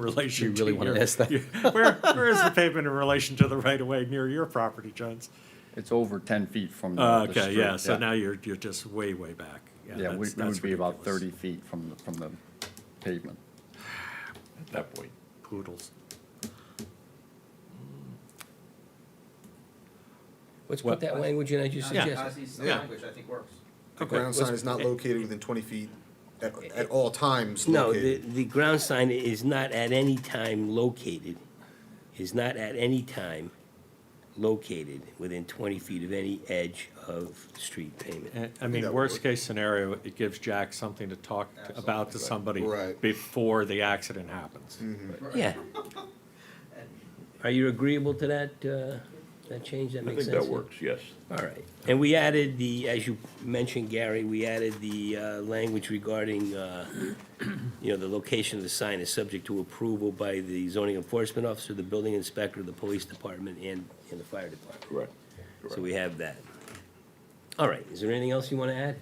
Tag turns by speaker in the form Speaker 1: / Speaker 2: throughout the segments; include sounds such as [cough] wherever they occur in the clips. Speaker 1: relation
Speaker 2: You
Speaker 1: to
Speaker 2: really wanna
Speaker 1: your.
Speaker 2: ask that?
Speaker 1: [laughs] Where, where is the pavement in relation to the right-of-way near your property, Jones?
Speaker 3: It's over 10 feet from
Speaker 1: Uh,
Speaker 3: the the street.
Speaker 1: Okay, yeah, so now you're, you're just way, way back.
Speaker 3: Yeah, we
Speaker 1: that's-
Speaker 3: we
Speaker 1: that's
Speaker 3: would be about
Speaker 1: ridiculous.
Speaker 3: 30 feet from, the- from the pavement.
Speaker 2: at that point.
Speaker 1: Poodles.
Speaker 2: Let's
Speaker 1: Well-
Speaker 2: put that language in, I just
Speaker 1: Yeah.
Speaker 2: suggested.
Speaker 4: Ozzy's
Speaker 1: Yeah.
Speaker 4: language, I think works.
Speaker 5: The
Speaker 1: Okay,
Speaker 5: ground
Speaker 1: let's-
Speaker 5: sign is not located within twenty feet at, at all times
Speaker 2: eh, No, the,
Speaker 5: located.
Speaker 2: the ground sign is not at any time located, is not at any time located within twenty feet of any edge of street pavement.
Speaker 1: I- I mean,
Speaker 5: That
Speaker 1: worst
Speaker 5: would-
Speaker 1: case scenario, it gives Jack something to talk about to somebody
Speaker 5: Right. Mm-hmm.
Speaker 1: before the accident happens. [laughs]
Speaker 2: Yeah. Are you agreeable to that, uh, that change? That
Speaker 6: I
Speaker 2: makes
Speaker 6: think
Speaker 2: sense?
Speaker 6: that works, yes.
Speaker 2: All right. And we added the, as you mentioned, Gary, we added the uh, language regarding, uh, you know, the location of the sign is subject to approval by the zoning enforcement officer, the building inspector, the police department, and, and the fire department.
Speaker 6: Correct.
Speaker 2: So we have that. All right, is there anything else you want to add?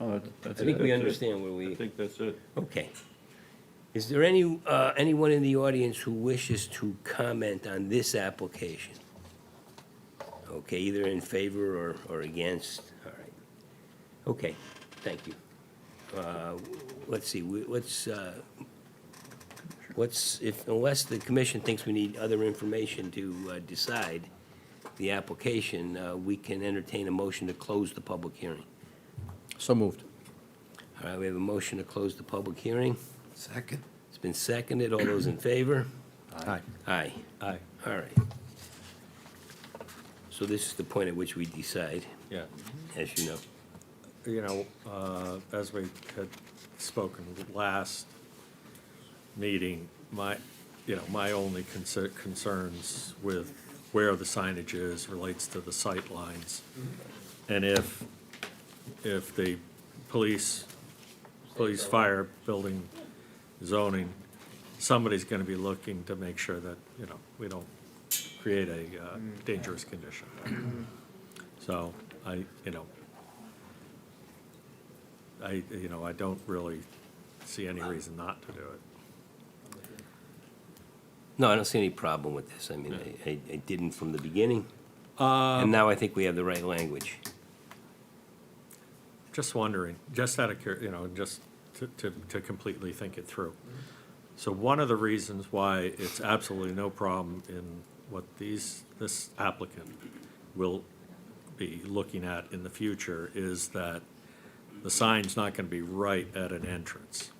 Speaker 6: I
Speaker 2: I think we understand where
Speaker 6: I
Speaker 2: we,
Speaker 6: think that's it.
Speaker 2: okay. Is there any, uh, anyone in the audience who wishes to comment on this application? Okay, either in favor or, or against, all right. Okay, thank you. Uh, Let's see, we- what's, uh, what's, if, unless the commission thinks we need other information to uh, decide the application, uh, we can entertain a motion to close the public hearing.
Speaker 4: So moved.
Speaker 2: All right, we have a motion to close the public hearing.
Speaker 5: Second.
Speaker 2: It's been seconded. All those in favor?
Speaker 4: Aye.
Speaker 2: Aye.
Speaker 1: Aye,
Speaker 2: All right. So this is the point at which we decide,
Speaker 1: yeah.
Speaker 2: as you know.
Speaker 1: you know, uh, as we had spoken last meeting, my, you know, my only concer- concerns with where the signage is relates to the sight lines, And if, if the police, police, fire, building, zoning, somebody's gonna be looking to make sure that, you know, we don't create a uh, dangerous condition. So I, you know, I, you know, I don't really see any reason not to do it.
Speaker 2: No, I don't see any problem with this. I mean, I- I, I didn't from the beginning,
Speaker 1: Uh,
Speaker 2: and now I think we have the right language.
Speaker 1: just wondering, just out of cur, you know, just to, to, to completely think it through. So one of the reasons why it's absolutely no problem in what these, this applicant will be looking at in the future is that the sign's not gonna be right at an entrance.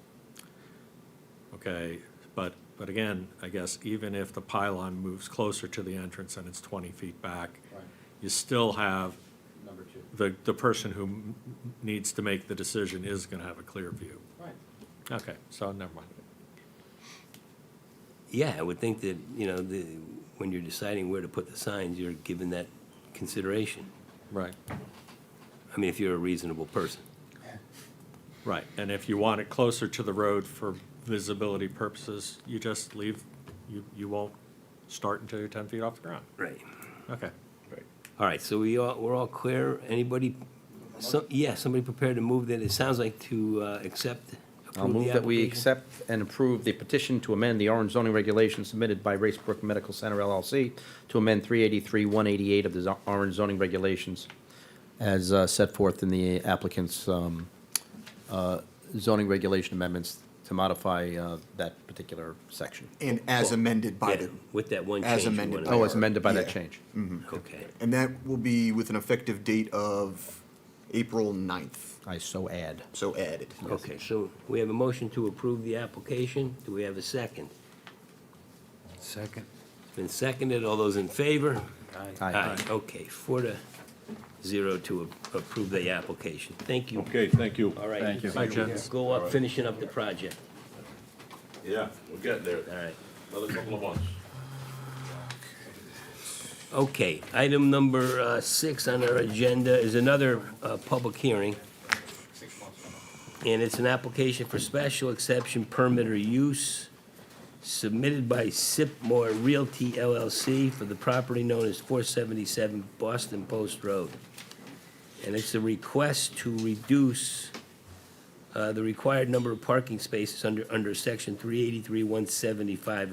Speaker 1: Okay, but, but again, I guess even if the pylon moves closer to the entrance and it's twenty feet back, you still have
Speaker 4: Number two.
Speaker 1: the, the person who m- m- needs to make the decision is gonna have a clear view.
Speaker 4: Right.
Speaker 1: Okay, so never mind.
Speaker 2: Yeah, I would think that, you know, the, when you're deciding where to put the signs, you're given that consideration.
Speaker 1: Right.
Speaker 2: I mean, if you're a reasonable person.
Speaker 1: Right, and if you want it closer to the road for visibility purposes, you just leave, you, you won't start until you're ten feet off the ground.
Speaker 2: Right.
Speaker 1: Okay.
Speaker 6: Right.
Speaker 2: All right, so we all, we're all clear. Anybody, so, yeah, somebody prepared to move that, it sounds like to uh, accept,
Speaker 4: I'll
Speaker 2: approve the
Speaker 4: move that we
Speaker 2: application?
Speaker 4: accept and approve the petition to amend the Orange zoning regulations submitted by Racebrook Medical Center LLC to amend 383-188 of the zo- Orange zoning regulations as uh, set forth in the applicant's um, uh, zoning regulation amendments to modify uh, that particular section.
Speaker 5: And as amended by
Speaker 2: Oh, Yeah,
Speaker 5: the,
Speaker 2: With that one change.
Speaker 5: as
Speaker 2: you
Speaker 5: amended
Speaker 2: wanna
Speaker 5: by-
Speaker 4: Oh,
Speaker 2: make.
Speaker 4: as amended by that
Speaker 5: Yeah.
Speaker 4: change.
Speaker 2: Mm-hmm. Okay,
Speaker 5: and that will be with an effective date of April 9th.
Speaker 4: I so add.
Speaker 5: so added.
Speaker 2: okay, so we have a motion to approve the application. Do we have a second?
Speaker 4: Second.
Speaker 2: It's been seconded. All those in favor?
Speaker 4: Aye.
Speaker 2: Okay, four to zero to a- approve the application. Thank you.
Speaker 6: Okay, thank you.
Speaker 2: All right.
Speaker 3: Thank you.
Speaker 1: Bye, gents.
Speaker 2: Go up, finishing up the project.
Speaker 6: Yeah, we'll get there.
Speaker 2: All right.
Speaker 6: Another couple of months.
Speaker 2: Okay, item number uh, six on our agenda is another uh, public hearing. And it's an application for special exception permit or use submitted by Sipmore Realty LLC for the property known as 477 Boston Post Road. And it's a request to reduce uh, the required number of parking spaces under, under section three eighty-three, one seventy-five